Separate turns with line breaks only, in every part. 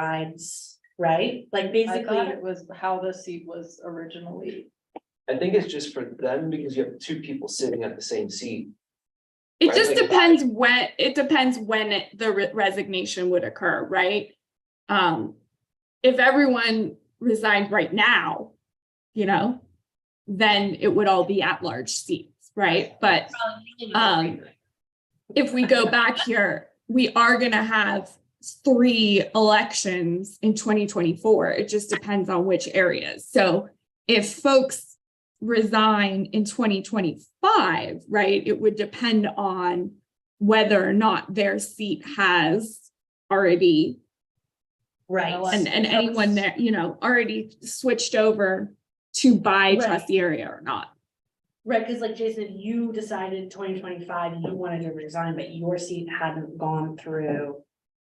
overrides, right? Like
I
basically,
thought it was how the seat was originally.
I think it's just for them because you have two people sitting at the same seat.
It
Right,
just
like-
depends when, it depends when it- the re- resignation would occur, right? Um, if everyone resigned right now, you know, then it would all be at-large seats, right? But Um, if we go back here, we are gonna have three elections in twenty twenty-four. It just depends on which areas. So if folks resign in twenty twenty-five, right, it would depend on whether or not their seat has already,
right,
and, and anyone there, you know, already switched over to buy
Right.
trustee area or not.
right, cause like Jason, you decided twenty twenty-five, you wanted to resign, but your seat hadn't gone through.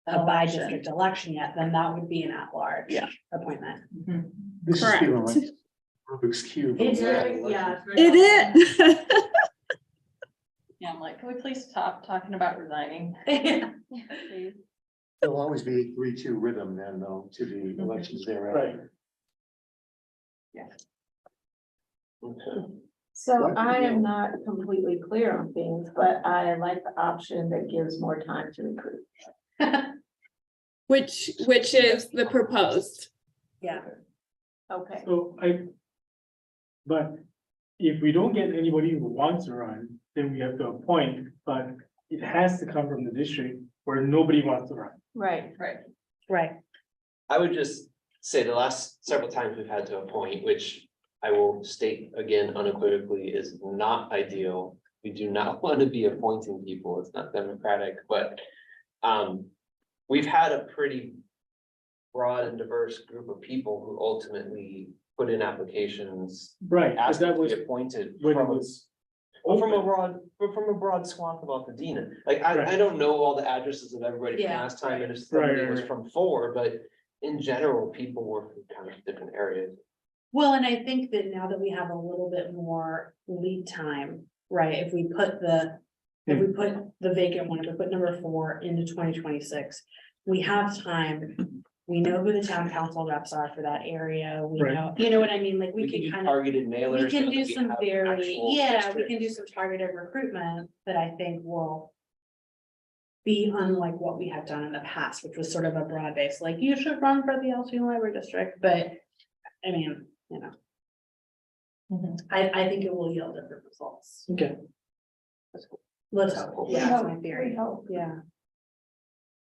A by
election.
district election yet, then that would be an at-large.
Yeah.
Appointment.
Mhm.
This is
Correct.
feeling like Rubik's Cube.
It's,
very-
yeah.
yeah,
It is.
Yeah, I'm like, can we please stop talking about resigning? please?
There'll always be a three-two rhythm then, though, to the elections thereafter.
Okay.
So
What
I
would you-
am not completely clear on things, but I like the option that gives more time to recruit.
Which, which is the proposed.
Yeah,
Okay,
So I. But if we don't get anybody who wants to run, then we have to appoint, but it has to come from the district where nobody wants to run.
right,
Right,
right,
I would just say the last several times we've had to appoint, which I will state again unequivocally is not ideal. We do not want to be appointing people. It's not democratic, but um, we've had a pretty broad and diverse group of people who ultimately put in applications,
Right, but
asked
that
to
was
be appointed
when it
from a
was.
Well, from a
open.
broad, but from a broad swath of Altadena, like I, I
Right.
don't know all the addresses of everybody from
Yeah.
last time, and if
Right,
somebody
right,
was
right.
from four, but. In general, people were from kind of different areas,
well, and I think that now that we have a little bit more lead time, right, if we put the. If we put the vacant one, if we put number four into twenty twenty-six, we have time. We know who the town council reps are for that area, we
Right.
know, you know what I mean, like,
we
we
can do
could kind of,
targeted mailers.
we
so
can
that
do some
have
very,
actual
yeah, we can do
districts.
some targeted recruitment that I think will. Be unlike what we have done in the past, which was sort of a broad base, like, you should run for the Altoona Library District, but, I mean, you know.
Mm-hmm.
Mhm.
I, I think it will yield different results.
Okay.
Let's hope, yeah, that's my theory, yeah.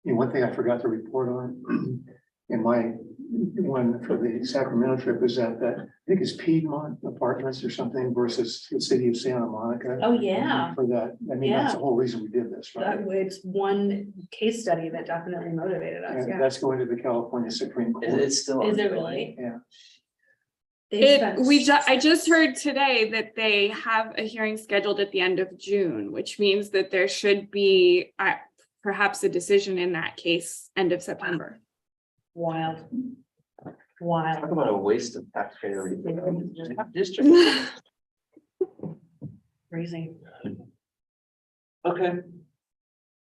And one thing I forgot to report on in my one for the Sacramento trip is that, that I think it's Piedmont Apartments or something versus the city of Santa Monica.
Oh, yeah.
For that, I mean, that's the whole reason we did this,
That
right?
it's one case study that definitely motivated us,
And
yeah.
that's going to the California Supreme Court.
It- It's still.
Is it
ongoing.
really?
Yeah.
They
It,
spent-
we ju- I just heard today that they have a hearing scheduled at the end of June, which means that there should be uh, perhaps a decision in that case end of September.
Wild.
Talk
Wild.
about a waste of taxpayer. resources. Just have districts.
Crazy.
Okay.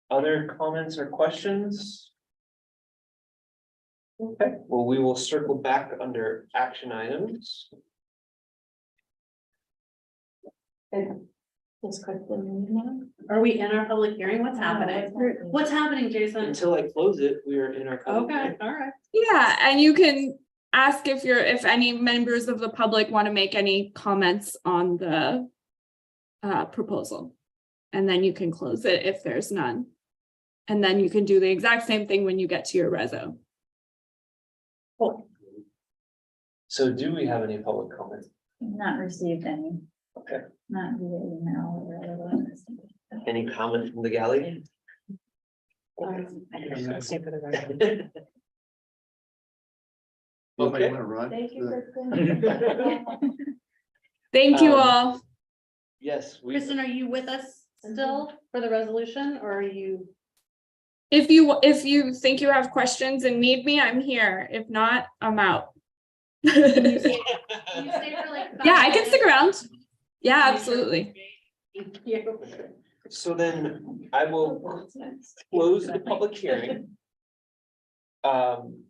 Other comments or questions? Okay, well, we will circle back under action items.
just quickly, you know?
Are we in our public hearing? What's happening? What's happening, Jason?
Until I close it, we are in our. public
Okay,
hearing.
all right.
Yeah, and you can ask if you're, if any members of the public want to make any comments on the uh, proposal. And then you can close it if there's none. And then you can do the exact same thing when you get to your reso.
So do we have any public comments?
Not received any.
Okay.
Not via email or otherwise.
Any comment from the gallery?
Anybody
Okay.
want to run?
Thank you,
Kristen.
Kristen.
Thank you
Um,
all.
Yes, we,
Kristen, are you with us still for the resolution or are you?
If you, if you think you have questions and need me, I'm here. If not, I'm out. Yeah,
Can you stay for like? five
I can stick
minutes?
around. Yeah, absolutely.
Thank you.
so then I will close the public hearing. Um,